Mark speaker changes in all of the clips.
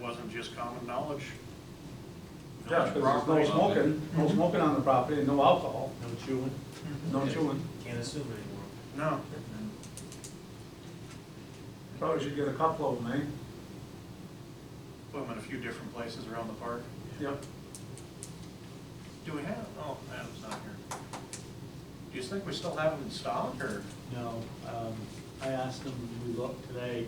Speaker 1: wasn't just common knowledge.
Speaker 2: Yeah,
Speaker 1: Village
Speaker 2: Mm-hmm. because
Speaker 1: property.
Speaker 2: there's no smoking, no smoking on the property, and no alcohol,
Speaker 3: No chewing?
Speaker 2: no chewing.
Speaker 3: Can't assume anymore.
Speaker 1: No,
Speaker 2: Probably should get a couple of them, eh?
Speaker 1: put them in a few different places around the park.
Speaker 2: Yep.
Speaker 1: Do we have, oh, Adam's not here. Do you think we still have them in stock, or?
Speaker 4: No, um, I asked them, we looked today,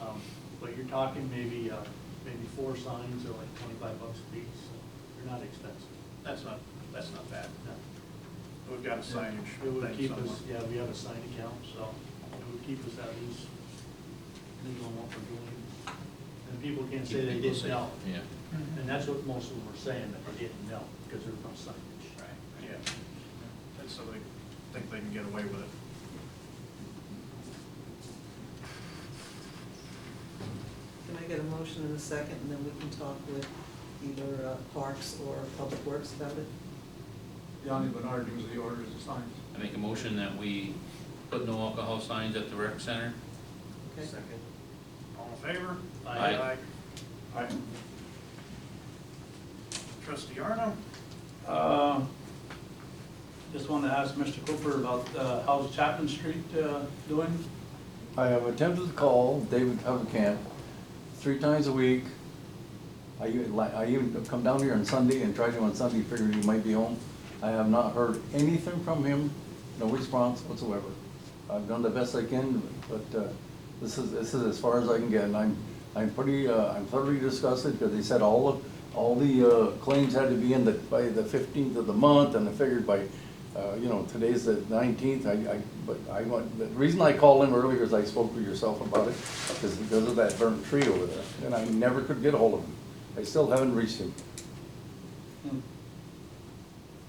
Speaker 4: um, but you're talking maybe, uh, maybe four signs are like twenty-five bucks a piece, so they're not expensive.
Speaker 1: That's not, that's not bad.
Speaker 4: No.
Speaker 1: We've got a signage
Speaker 4: It would
Speaker 1: thing
Speaker 4: keep us,
Speaker 1: somewhere.
Speaker 4: yeah, we have a sign account, so it would keep us at least legal on what we're doing. And people can say they didn't know,
Speaker 5: Yeah.
Speaker 4: and that's what most of them are saying, that they didn't know, because there's no signage.
Speaker 1: Right, yeah. And so they think they can get away with it.
Speaker 6: Can I get a motion in a second, and then we can talk with either uh, Parks or Public Works about it?
Speaker 2: Yanni Bernard usually orders the signs.
Speaker 5: I make a motion that we put no alcohol signs at the rec center.
Speaker 6: Okay.
Speaker 3: Second.
Speaker 1: All in favor?
Speaker 5: Aye.
Speaker 2: Aye.
Speaker 1: Trustee Arno?
Speaker 2: Uh, Just want to ask Mr. Cooper about, uh, how's Chapman Street uh, doing?
Speaker 7: I have attempted to call David Camp three times a week. I even, like, I even come down here on Sunday and tried to on Sunday, figured he might be home. I have not heard anything from him, no response whatsoever. I've done the best I can, but, uh, this is, this is as far as I can get, and I'm, I'm pretty, uh, I'm thoroughly disgusted, because they said all of, all the, uh, claims had to be in the, by the fifteenth of the month, and I figured by, uh, you know, today's the nineteenth, I, I, but I want, the reason I called him earlier is I spoke to yourself about it, is because of that burnt tree over there, and I never could get hold of him. I still haven't reached him.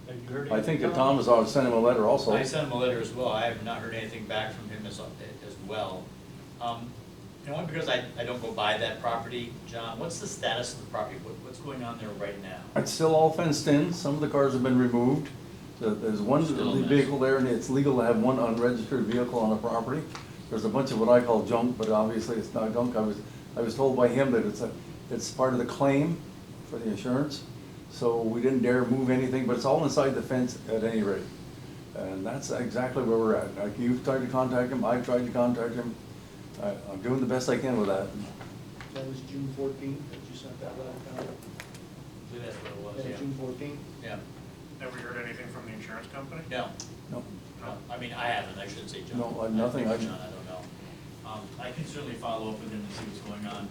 Speaker 4: Have you heard?
Speaker 7: I think that
Speaker 4: anything?
Speaker 7: Tom has already sent him a letter also.
Speaker 8: I sent him a letter as well, I have not heard anything back from him as, as well. Um, And only because I, I don't go by that property, John, what's the status of the property, what, what's going on there right now?
Speaker 7: It's still all fenced in, some of the cars have been removed. The- There's one
Speaker 5: Still a mess.
Speaker 7: vehicle there, and it's legal to have one unregistered vehicle on the property. There's a bunch of what I call junk, but obviously it's not junk. I was, I was told by him that it's a, it's part of the claim for the insurance. So we didn't dare move anything, but it's all inside the fence at any rate. And that's exactly where we're at. Like, you've tried to contact him, I've tried to contact him. I- I'm doing the best I can with that.
Speaker 4: That was June fourteenth, that you sent that letter
Speaker 8: I believe that's
Speaker 4: down?
Speaker 8: what it
Speaker 4: Yeah,
Speaker 8: was,
Speaker 4: June fourteenth?
Speaker 8: yeah.
Speaker 1: Have we heard anything from the insurance company?
Speaker 8: Yeah, no,
Speaker 7: No,
Speaker 8: no, I mean, I haven't, I shouldn't say John.
Speaker 7: No, I- nothing, I-
Speaker 8: John, I don't know. Um, I can certainly follow up with him and see what's going on.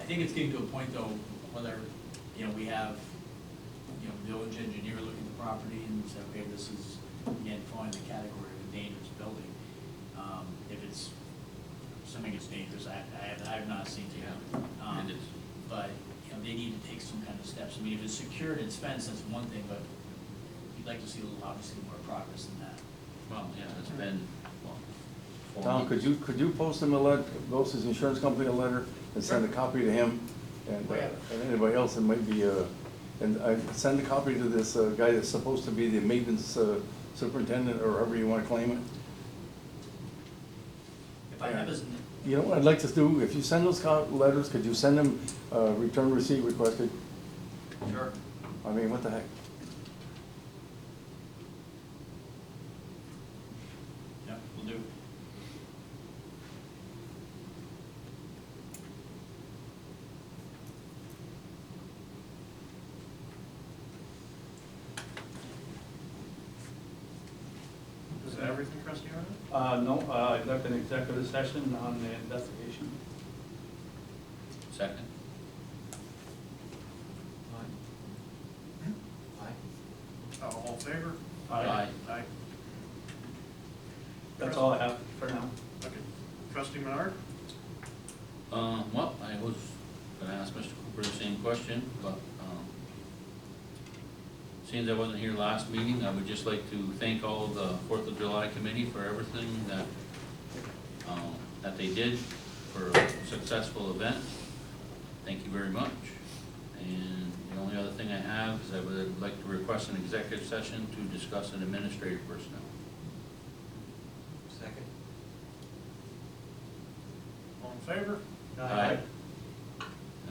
Speaker 8: I think it's getting to a point though, whether, you know, we have, you know, village engineer looking at the property and say, okay, this is, again, falling in the category of a dangerous building. Um, if it's, something it's dangerous, I, I have, I have not seen it.
Speaker 5: Yeah,
Speaker 8: Um,
Speaker 5: it is.
Speaker 8: But, you know, they need to take some kind of steps. I mean, if it's secured and it's fenced, that's one thing, but you'd like to see a little- obviously more progress than that.
Speaker 5: Well, yeah, it's been, well. four
Speaker 7: Tom,
Speaker 5: months.
Speaker 7: could you, could you post him a letter, post his insurance company a letter and send a copy to him? And, uh, and anybody else that might be, uh, and I send a copy to this uh, guy that's supposed to be the maintenance uh, superintendent or however you wanna claim it.
Speaker 8: If I have his, n-
Speaker 7: You know what I'd like to do, if you send those co- letters, could you send them, uh, return receipt requested?
Speaker 8: sure.
Speaker 7: I mean, what the heck?
Speaker 8: Yeah, we will do.
Speaker 1: Is that everything, trustee Arno?
Speaker 2: Uh, No, uh, I left an executive session on the investigation.
Speaker 5: Second.
Speaker 1: Uh, All in favor?
Speaker 5: Aye.
Speaker 1: Aye.
Speaker 2: That's all I have for now.
Speaker 1: Okay. Trustee Menard?
Speaker 5: Uh, well, I was gonna ask Mr. Cooper the same question, but, um, since I wasn't here last meeting, I would just like to thank all the Fourth of July committee for everything that, um, that they did for a successful event. Thank you very much. And the only other thing I have is I would like to request an executive session to discuss an administrative personnel.
Speaker 3: Second.
Speaker 1: All in favor?
Speaker 5: Aye.